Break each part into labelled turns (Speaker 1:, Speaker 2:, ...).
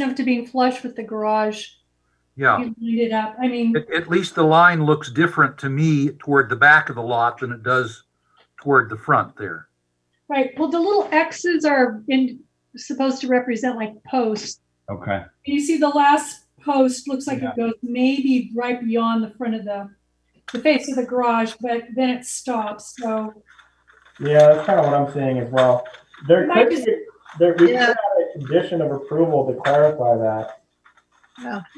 Speaker 1: enough to being flush with the garage,
Speaker 2: Yeah.
Speaker 1: you light it up. I mean,
Speaker 2: At, at least the line looks different to me toward the back of the lot than it does toward the front there.
Speaker 1: right. Well, the little X's are in, supposed to represent like posts.
Speaker 3: Okay.
Speaker 1: You see, the last post looks like
Speaker 3: Yeah.
Speaker 1: it goes maybe right beyond the front of the the face of the garage, but then it stops. So
Speaker 4: Yeah, that's kind of what I'm seeing as well. There
Speaker 1: Might
Speaker 4: could
Speaker 1: just-
Speaker 4: be, there, we could
Speaker 5: Yeah.
Speaker 4: have a condition of approval to clarify that.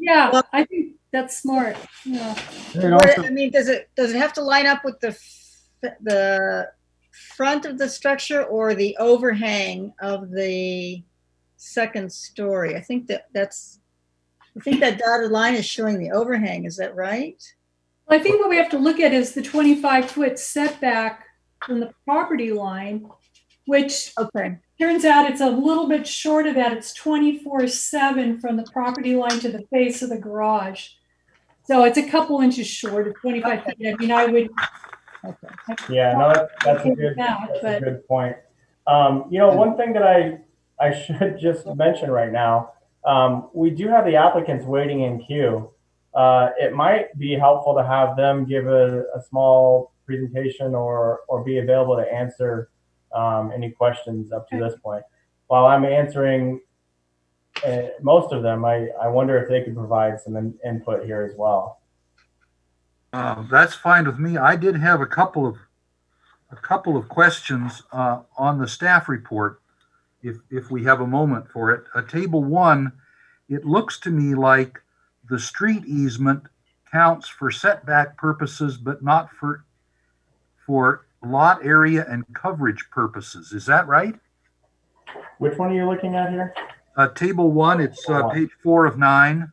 Speaker 1: yeah, I think that's smart. Yeah.
Speaker 3: And
Speaker 5: What-
Speaker 3: also,
Speaker 5: I mean, does it, does it have to line up with the, f- the front of the structure or the overhang of the second story? I think that that's, I think that dotted line is showing the overhang, is that right?
Speaker 1: Well, I think what we have to look at is the 25 foot setback from the property line, which
Speaker 5: Okay.
Speaker 1: Turns out it's a little bit short of that. It's twenty-four seven from the property line to the face of the garage. So it's a couple inches short of twenty-five feet. I mean, I would,
Speaker 5: Okay.
Speaker 4: Yeah, no, that's, that's a good,
Speaker 1: Yeah,
Speaker 4: that's a
Speaker 1: but-
Speaker 4: good point. Um, you know, one thing that I, I should just mention right now, um, we do have the applicants waiting in queue. Uh, it might be helpful to have them give a, a small presentation or, or be available to answer um, any questions up to this point. While I'm answering uh, most of them, I, I wonder if they could provide some in, input here as well.
Speaker 2: Uh, that's fine with me. I did have a couple of, a couple of questions, uh, on the staff report. If, if we have a moment for it, uh, table one, it looks to me like the street easement counts for setback purposes, but not for, for lot area and coverage purposes. Is that right?
Speaker 4: Which one are you looking at here?
Speaker 2: Uh, table one, it's uh,
Speaker 4: One.
Speaker 2: page four of nine.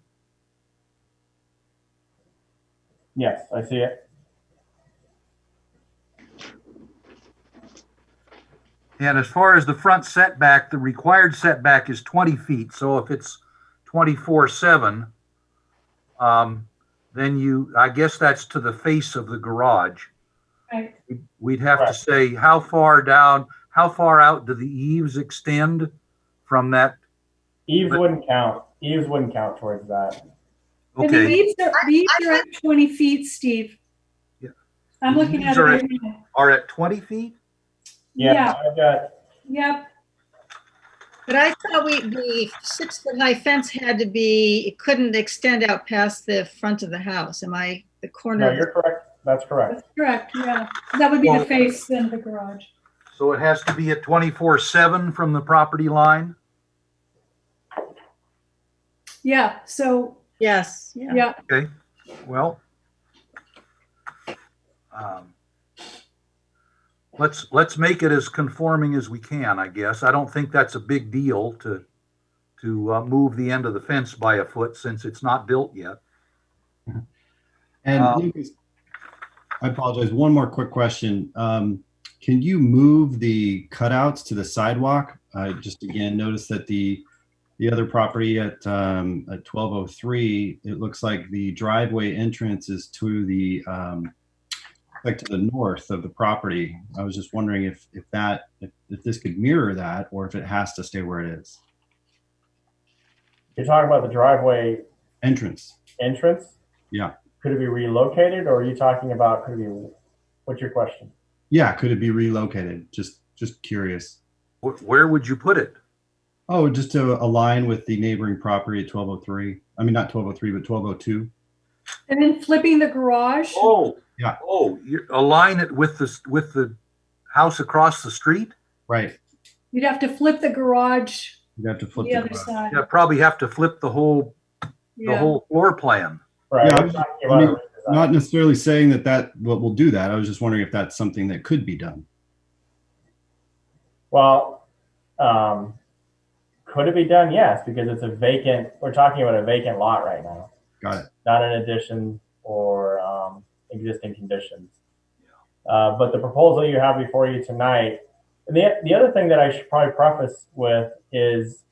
Speaker 4: Yes, I see it.
Speaker 2: And as far as the front setback, the required setback is 20 feet. So if it's 24 7, um, then you, I guess that's to the face of the garage.
Speaker 1: Right.
Speaker 2: We'd have to
Speaker 4: Correct.
Speaker 2: say how far down, how far out do the eaves extend from that?
Speaker 4: Eves
Speaker 2: But-
Speaker 4: wouldn't count. Eves wouldn't count towards that.
Speaker 1: and the
Speaker 2: Okay.
Speaker 1: leaves are, leaves are at twenty feet, Steve.
Speaker 2: Yeah.
Speaker 1: I'm looking at
Speaker 2: Leaves
Speaker 1: it
Speaker 2: are at-
Speaker 1: right now.
Speaker 2: Are at 20 feet?
Speaker 1: Yeah.
Speaker 4: Yeah, I've got,
Speaker 1: Yep,
Speaker 5: But I thought we, the six foot high fence had to be, it couldn't extend out past the front of the house. Am I the corner?
Speaker 4: no,
Speaker 5: of the-
Speaker 4: you're correct. That's correct.
Speaker 1: that's correct, yeah. That would be the
Speaker 2: Well-
Speaker 1: face then of the garage.
Speaker 2: So it has to be at 24 7 from the property line?
Speaker 1: Yeah, so,
Speaker 5: Yes, yeah.
Speaker 1: yeah,
Speaker 2: Okay, well. um, Let's, let's make it as conforming as we can, I guess. I don't think that's a big deal to, to uh, move the end of the fence by a foot since it's not built yet.
Speaker 3: and
Speaker 2: Um,
Speaker 3: Lucas, I apologize. One more quick question. Um, can you move the cutouts to the sidewalk? I just again noticed that the the other property at um, at 1203, it looks like the driveway entrance is to the um, like to the north of the property. I was just wondering if if that if, if this could mirror that or if it has to stay where it is.
Speaker 4: You're talking about the driveway
Speaker 3: Entrance.
Speaker 4: entrance?
Speaker 3: Yeah.
Speaker 4: Could it be relocated or are you talking about, could it be, what's your question?
Speaker 3: Yeah, could it be relocated? Just just curious.
Speaker 2: Wh- Where would you put it?
Speaker 3: Oh, just to align with the neighboring property at 1203. I mean, not 1203, but 1202.
Speaker 1: and then flipping the garage.
Speaker 2: Oh.
Speaker 3: Yeah.
Speaker 2: Oh, you align it with the, s- with the house across the street?
Speaker 3: Right.
Speaker 1: You'd have to flip the garage
Speaker 3: You'd have to flip
Speaker 1: the
Speaker 3: the
Speaker 1: other
Speaker 3: garage.
Speaker 1: side.
Speaker 2: Yeah, probably have to flip the whole, the
Speaker 1: Yeah.
Speaker 2: whole floor plan.
Speaker 4: Right.
Speaker 3: Yeah,
Speaker 4: we're talking about
Speaker 3: I
Speaker 4: a
Speaker 3: mean,
Speaker 4: redesign.
Speaker 3: Not necessarily saying that that what will do that. I was just wondering if that's something that could be done.
Speaker 4: Well, um, could it be done? Yes, because it's a vacant, we're talking about a vacant lot right now,
Speaker 3: Got it.
Speaker 4: not an addition or um, existing conditions. Uh, but the proposal you have before you tonight, and the, the other thing that I should probably preface with is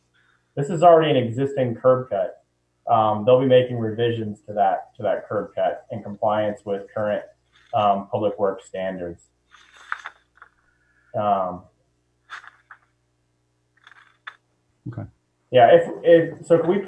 Speaker 4: this is already an existing curb cut. Um, they'll be making revisions to that to that curb cut in compliance with current um, public works standards. Um,
Speaker 3: Okay.
Speaker 4: Yeah, if, if so, can we